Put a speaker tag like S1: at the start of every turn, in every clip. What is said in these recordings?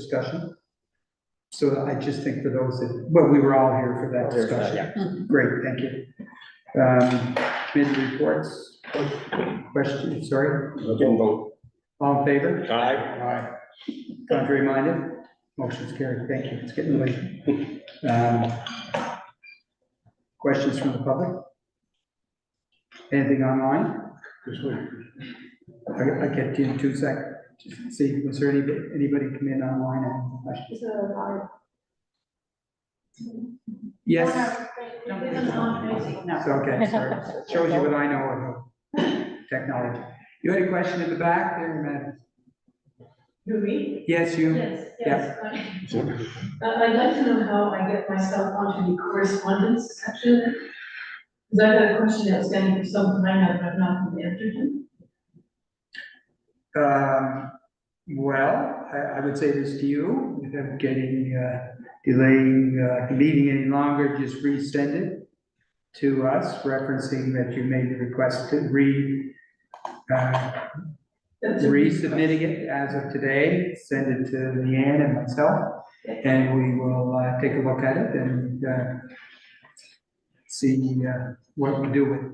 S1: discussion? So I just think for those that, well, we were all here for that
S2: There's that,
S1: discussion. Great, thank you. Um, committee reports, questions, sorry,
S2: Looking vote.
S1: all in favor?
S2: Aye.
S1: Aye. Contrary minded? Motion's carried, thank you, it's getting late. Um, Questions from the public? Anything online? I, I get you in two seconds, just see, was there anybody, anybody come in online and question?
S3: Is there a bar?
S1: Yes,
S3: No, there's not.
S1: it's okay, sorry, shows you what I know about technology. You had a question in the back there, man?
S3: Do we?
S1: Yes, you,
S3: Yes, yes. Uh, I'd like to know how I get myself onto the correspondence section. Because I've had a question outstanding for some time, I've I've not been answered.
S1: um, well, I, I would say this to you, without getting, uh, delaying, uh, the meeting any longer, just resend it to us, referencing that you made the request to re, uh,
S3: That's a-
S1: resubmitting it as of today, send it to Leanne and myself, and we will uh, take a look at it and uh, see uh, what we do with it.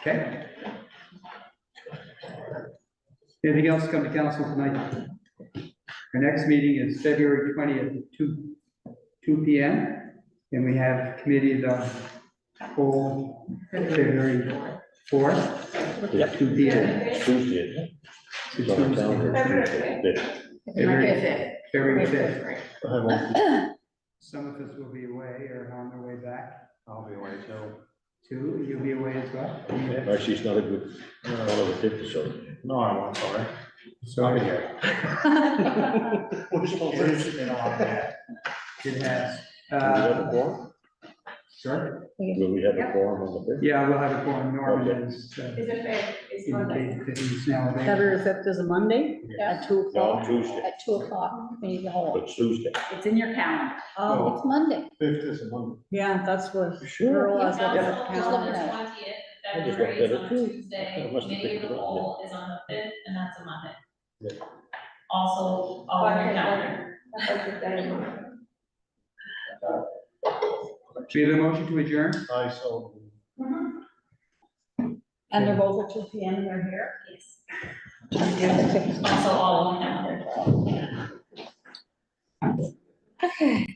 S1: Okay? Anything else come to council tonight? Our next meeting is February twentieth, two, two P M. And we have committee the whole February fourth,
S2: Yep.
S1: two P M.
S2: Tuesday, isn't it? It's on the calendar. Tuesday.
S1: February
S4: fifth.
S1: February fifth.
S2: I won't-
S1: Some of us will be away or on their way back.
S5: I'll be away too.
S1: Two, you'll be away as well?
S2: Actually, it's not a good, not over fifty, so.
S5: No, I won't, sorry. Sorry.
S1: Sorry, it has.
S2: Will we have
S1: Uh,
S2: a quorum?
S1: Sure.
S2: Will we have a quorum on the fifth?
S1: Yeah, we'll have a forum, Norman is, uh,
S3: Is it fair? It's not like-
S1: indicated that he's now available.
S4: February fifth is a Monday at two
S2: No,
S4: o'clock.
S2: Tuesday,
S6: At two o'clock, we need to hold.
S2: but Tuesday.
S4: It's in your calendar.
S5: Oh.
S6: It's Monday.
S5: Fifth is a Monday.
S4: Yeah, that's what.
S2: Sure.
S4: Earl has up in her
S7: Council on the
S4: calendar.
S7: twentieth,
S2: I just
S7: February
S2: looked
S7: is
S2: at it
S7: on a
S2: too. I
S7: Tuesday,
S2: must have
S7: committee of
S2: picked
S7: the
S2: it up.
S7: whole is on the fifth, and that's a Monday.
S5: Yeah.
S7: Also, all on your calendar.
S3: that's like the day.
S1: Do you have a motion to adjourn?
S5: I so.
S6: And they're both at two P M, they're here?
S7: Yes.
S6: Okay.
S7: Also, all on your calendar.
S6: Okay.